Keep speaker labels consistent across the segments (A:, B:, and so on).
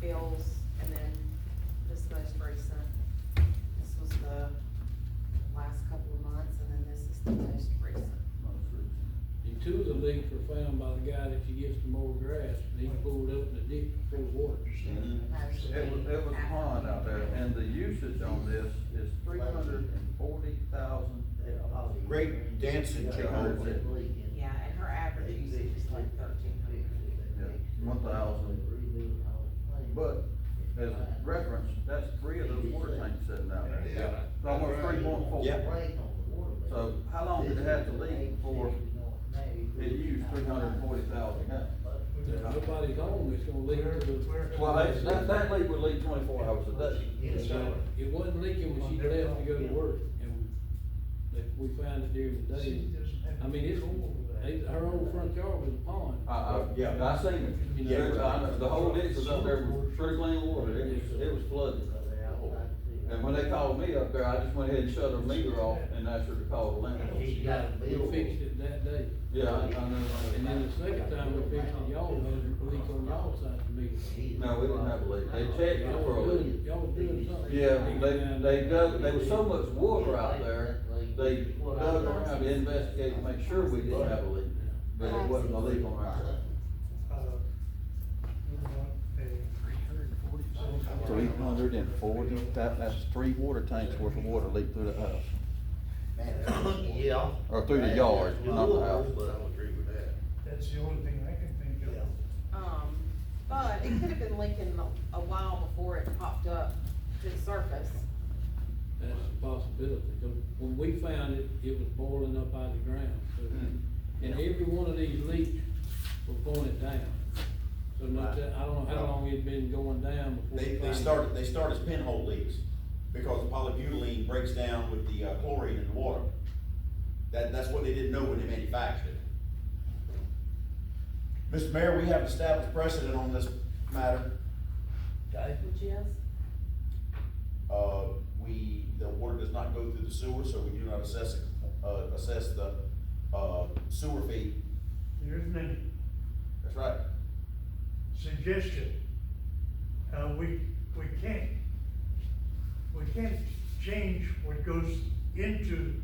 A: bills, and then this most recent. This was the last couple of months, and then this is the most recent.
B: And two of the leaks were found by the guy that's against the mower grass, and he pulled up in the ditch full of water.
C: It was, it was a pond out there, and the usage on this is three hundred and forty thousand dollars.
D: Great dancing
C: Jehovah.
D: Jehovah.
A: Yeah, and her average usage is like thirteen hundred.
C: one thousand. But as a reference, that's three of those water tanks sitting out there.
D: Yeah.
C: It's Almost three point four.
D: Yeah.
C: So how long did it have to leak before it used three hundred and forty thousand
B: If
C: gallons?
B: nobody's home, it's gonna leak to the.
C: Well, that, that, that leak would leak twenty-four hours a day.
B: So, It wasn't leaking when she left to go to work, and that we found it during the day. I mean, it's, it's- her whole front yard was a pond.
C: I, I, yeah, I seen it.
B: Yeah.
C: There's- I know, the whole ditch was up there, with true clean water, it was, it was flooded. And when they called me up there, I just went ahead and shut the meter off and asked her to call the landlord.
B: She got, we fixed it that day.
C: Yeah, I, I know.
B: And then the second time we fixed it, y'all had a leak on y'all side of the meter.
C: No, we didn't have a leak. They checked it
B: Y'all
C: for a
B: was doing,
C: leak.
B: y'all was doing something.
C: Yeah, they, they dug, there was so much water out there, they dug around to investigate to make sure we didn't have a leak. But it wasn't a leak on our side.
E: Three hundred and forty, that, that's three water tanks worth of water leaked through the uh, house,
D: Yeah.
E: or through the yard, not the house.
D: But I don't agree with that.
F: That's the only thing I can think of.
A: Um, but it could have been leaking a- a while before it popped up to the surface.
B: That's a possibility, 'cause when we found it, it was boiling up out of the ground, so.
C: Hmm.
B: And every one of these leaks were going down. So not that, I don't know how long it'd been going down before. we
D: They, they
B: found it.
D: started, they start as pinhole leaks, because the polybutylene breaks down with the uh, chlorine in the water. That, that's what they didn't know when they manufactured it. Mr. Mayor, we have established precedent on this matter. Okay.
A: Which is?
D: Uh, we, the water does not go through the sewer, so we do not assess, it, uh, assess the, uh, sewer fee.
F: Here's my
D: That's right.
F: suggestion. Uh, we, we can't, we can't change what goes into,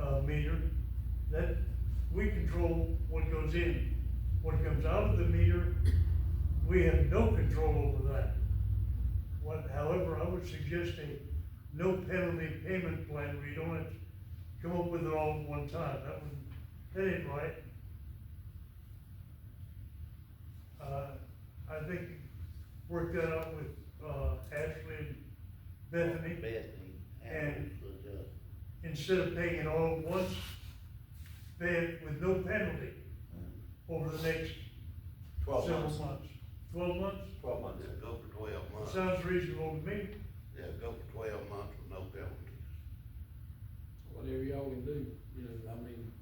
F: uh, meter. That, we control what goes in. What comes out of the meter, we have no control over that. What, however, I would suggest a no penalty payment plan where you don't have to come up with it all at one time. That would, that ain't right. Uh, I think work that out with, uh, Ashley and Bethany, And- instead of paying it all at once, pay it with no penalty over the next
D: Mm. Twelve
F: several
D: months.
F: months. Twelve months,
D: Twelve months.
G: Go for twelve months.
F: sounds reasonable to me.
G: Yeah, go for twelve months with no penalty.
B: Whatever y'all can do, you know, I mean,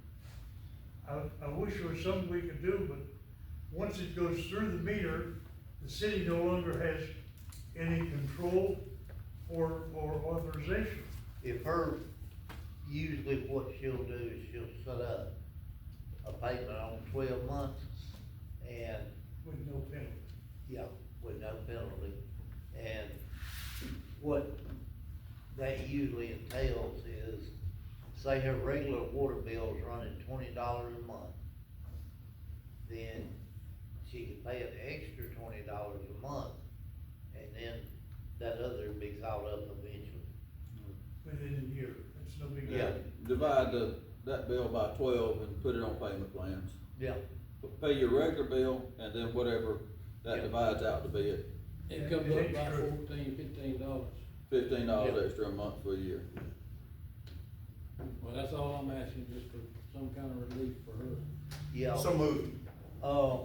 F: I, I wish there was something we could do, but once it goes through the meter, the city no longer has any control or, or authorization.
H: If her, usually what she'll do is she'll set up a payment on twelve months and,
F: With no penalty.
H: yeah, with no penalty. And what that usually entails is, say her regular water bill's running twenty dollars a month. Then she could pay an extra twenty dollars a month and then that other would be caught up eventually.
F: within a year, that's no big deal.
H: Yeah.
C: Divide the, that bill by twelve and put it on payment plans.
H: Yeah.
C: Pay your regular bill and then whatever that
H: Yeah.
C: divides out to be it,
B: it comes up by
F: Extra.
B: fourteen, fifteen dollars.
C: fifteen
H: Yeah.
C: dollars extra a month for a year.
B: Well, that's all I'm asking, just for some kind of relief for her.
H: Yeah.
D: So moved.
H: Uh,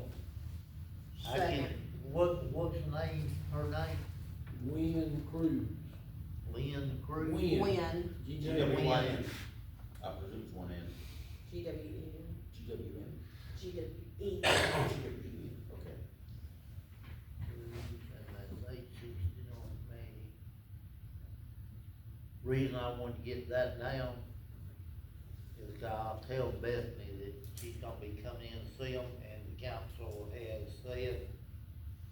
H: I can,
A: Second.
H: what, what's her name, her name?
B: Wynn Cruz.
H: Lynn Cruz?
B: Wynn.
A: Wynn.
B: G
D: G
B: W
D: W
B: Y
D: Y
B: N.
D: N. I presume it's one N.
A: G W E N,
D: G W N.
A: G W E.
D: Okay.
H: Cruz, And that's eight sixty-nine, maybe. uh, Reason I want to get that down is 'cause I'll tell Bethany that she's gonna be coming in and see them, and the council has said